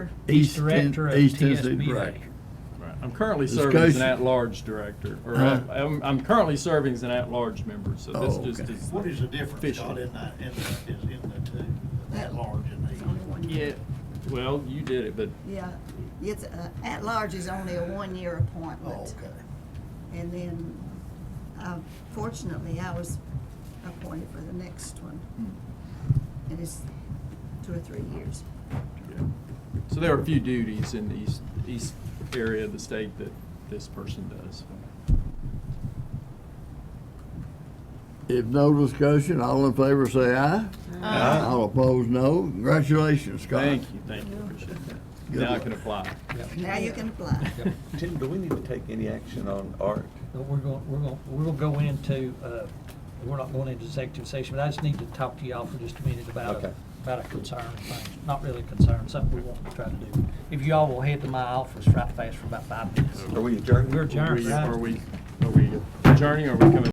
East Director Ten- of East Tennessee TSBA. Director. Right. I'm currently Discussion. serving as an at-large director, or uh, Huh? I'm, I'm currently serving as an at-large member, so this Oh, just okay. is. What is the difference, Official. Scott, in that, in the, is in the two, that large and the? Yeah, well, you did it, but Yeah, it's, uh, at-large is only a one-year Oh, appointment. okay. And then, uh, fortunately, I was appointed for the next one, Hmm. and it's two or three years. yeah. So there are a few duties in the east, east area of the state that this person does. If no discussion, all in favor say aye. Aye. All opposed, no. Congratulations, Scott. Thank you, thank you, appreciate that. Good Now I luck. can apply. Now you can apply. Tim, do we need to take any action on art? But we're going, we're going, we're going to go into, uh, we're not going into executive session, but I just need to talk to y'all for just a minute about, Okay. a- about a concern thing. Not really a concern, something we want to try to do. If y'all will head to my office right fast for about five minutes. Are we adjourned? We're Are adjourned, we- right? Are we, are we adjourning, or are we coming?